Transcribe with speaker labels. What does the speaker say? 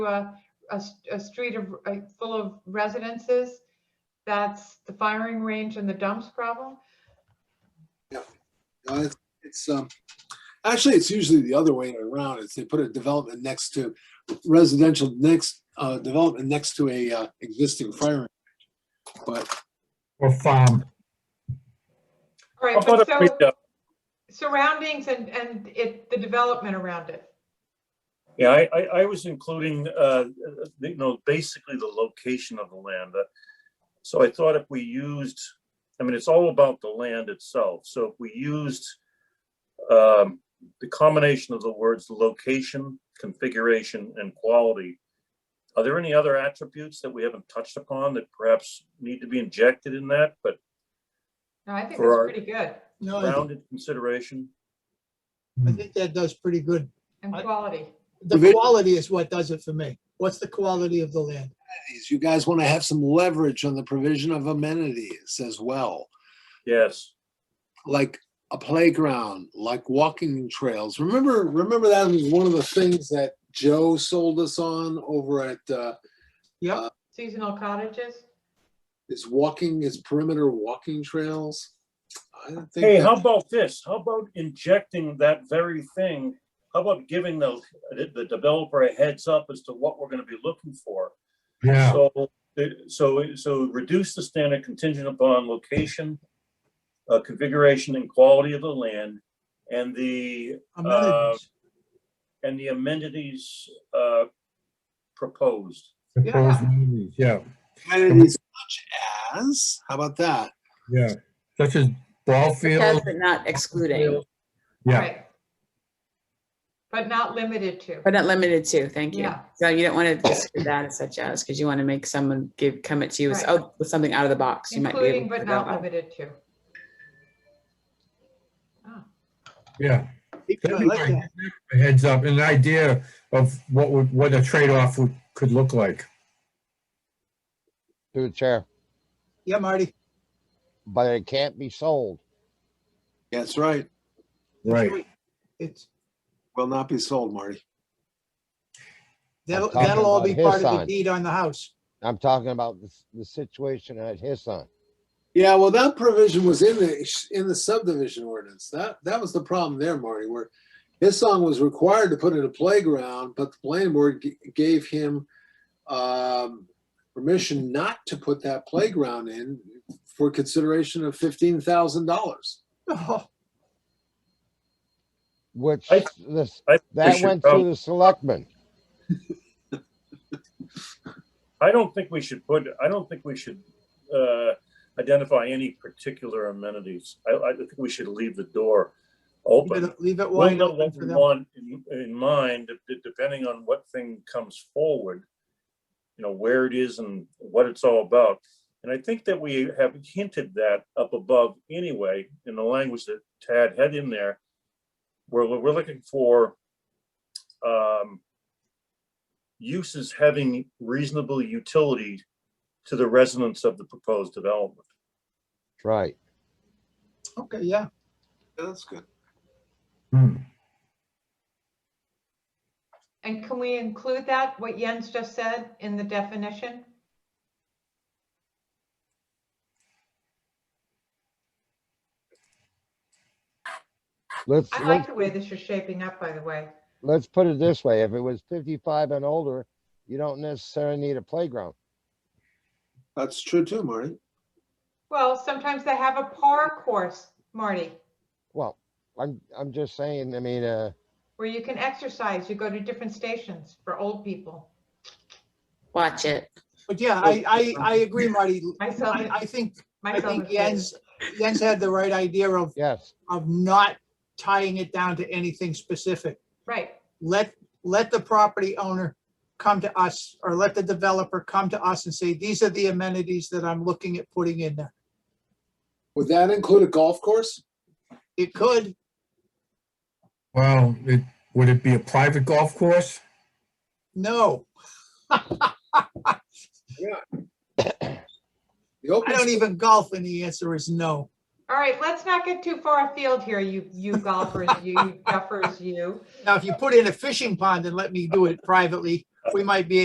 Speaker 1: a, a s- a street of, uh, full of residences, that's the firing range and the dumps problem.
Speaker 2: No, it's- It's, um, actually, it's usually the other way around. It's they put a development next to residential next, uh, development next to a, uh, existing fire. range. But
Speaker 3: Or farm.
Speaker 1: All right, but so surroundings and, and it, the development around it.
Speaker 4: Yeah, I, I, I was including, uh, you know, basically the location of the land. Uh, So I thought if we used, I mean, it's all about the land itself. So if we used um, the combination of the words location, configuration, and quality, are there any other attributes that we haven't touched upon that perhaps need to be injected in that, but
Speaker 1: No, I think
Speaker 4: For our-
Speaker 1: that's pretty good
Speaker 5: No, I think-
Speaker 4: rounded consideration?
Speaker 5: I think that does pretty good.
Speaker 1: and
Speaker 5: I-
Speaker 1: quality.
Speaker 2: Vivi-
Speaker 5: The quality is what does it for me. What's the quality of the land?
Speaker 2: is you guys want to have some leverage on the provision of amenities as well,
Speaker 4: Yes,
Speaker 2: like a playground, like walking trails. Remember, remember that was one of the things that Joe sold us on over at, uh,
Speaker 1: Seasonal cottages.
Speaker 2: his walking, his perimeter walking trails. I don't think.
Speaker 4: Hey,
Speaker 2: that-
Speaker 4: how about this? How about injecting that very thing? How about giving the, the developer a heads up as to what we're gonna be looking for?
Speaker 3: Yeah,
Speaker 4: So, it- so, so reduce the standard contingent upon location, uh, configuration and quality of the land and the, Uh,
Speaker 5: Amenities.
Speaker 4: and the amenities, uh, proposed.
Speaker 3: proposed amenities, yeah,
Speaker 2: amenities such as, how about that?
Speaker 3: yeah, such as ball
Speaker 6: Because
Speaker 3: field,
Speaker 6: but not excluding,
Speaker 3: yeah,
Speaker 1: Right. But not limited to.
Speaker 6: but not limited to, thank you.
Speaker 1: Yeah.
Speaker 6: So you don't want to just do that as such as, because you want to make someone give, come at you as,
Speaker 1: Right.
Speaker 6: oh, with something out of the box. You might be
Speaker 1: Including
Speaker 6: able to
Speaker 1: but
Speaker 6: go
Speaker 1: not
Speaker 6: out.
Speaker 1: limited to. Ah,
Speaker 3: yeah.
Speaker 5: I
Speaker 3: That'd be
Speaker 5: like
Speaker 3: great.
Speaker 5: that.
Speaker 3: A Heads up, an idea of what would, what a trade-off would, could look like.
Speaker 7: through the chair,
Speaker 5: Yeah, Marty.
Speaker 7: but it can't be sold.
Speaker 2: That's right.
Speaker 3: Right.
Speaker 5: It's,
Speaker 2: Will not be sold, Marty.
Speaker 5: that'll,
Speaker 7: talking
Speaker 5: that'll all be
Speaker 7: about his
Speaker 5: part of the
Speaker 7: side.
Speaker 5: deed on the house.
Speaker 7: I'm talking about the, s- the situation at Hisson.
Speaker 2: Yeah, well, that provision was in the, in the subdivision ordinance. That, that was the problem there, Marty, where his song was required to put in a playground, but the planning board g- gave him um, permission not to put that playground in for consideration of fifteen thousand dollars.
Speaker 5: Oh,
Speaker 7: Which
Speaker 4: I-
Speaker 7: this,
Speaker 4: I- I
Speaker 7: that
Speaker 4: should
Speaker 7: went
Speaker 4: prob-
Speaker 7: through the selectmen.
Speaker 4: I don't think we should put, I don't think we should uh, identify any particular amenities. I, I think we should leave the door
Speaker 5: leave
Speaker 4: open.
Speaker 5: it- Leave it
Speaker 4: We'll
Speaker 5: wide
Speaker 4: know what
Speaker 5: open for
Speaker 4: we
Speaker 5: them.
Speaker 4: want in, in mind, de- depending on what thing comes forward. You know, where it is and what it's all about. And I think that we have hinted that up above anyway, in the language that Tad had in there. Where we're we're looking for um, uses having reasonable utility to the residents of the proposed development.
Speaker 7: Right.
Speaker 5: Okay, yeah.
Speaker 2: That's good.
Speaker 3: Hmm.
Speaker 1: And can we include that, what Jens just said, in the definition?
Speaker 7: Let's,
Speaker 1: I like
Speaker 7: let's,
Speaker 1: the way this is shaping up, by the way.
Speaker 7: let's put it this way. If it was fifty-five and older, you don't necessarily need a playground.
Speaker 2: That's true too, Marty.
Speaker 1: Well, sometimes they have a par course, Marty,
Speaker 7: Well, I'm, I'm just saying, I mean, uh,
Speaker 1: where you can exercise. You go to different stations for old people.
Speaker 6: Watch it.
Speaker 5: But yeah, I, I, I agree, Marty.
Speaker 1: Myself,
Speaker 5: I, I think, I
Speaker 1: myself.
Speaker 5: think
Speaker 1: included.
Speaker 5: Jens, Jens had the right idea of,
Speaker 7: yes,
Speaker 5: of not tying it down to anything specific.
Speaker 1: Right,
Speaker 5: let, let the property owner come to us or let the developer come to us and say, these are the amenities that I'm looking at putting in there.
Speaker 2: Would that include a golf course?
Speaker 5: It could,
Speaker 3: Well, it, would it be a private golf course?
Speaker 5: no,
Speaker 2: The open
Speaker 5: I don't even golf and the answer is no.
Speaker 1: all right, let's not get too far afield here, you, you golfers, you you duffers, you.
Speaker 5: Now, if you put in a fishing pond and let me do it privately, we might be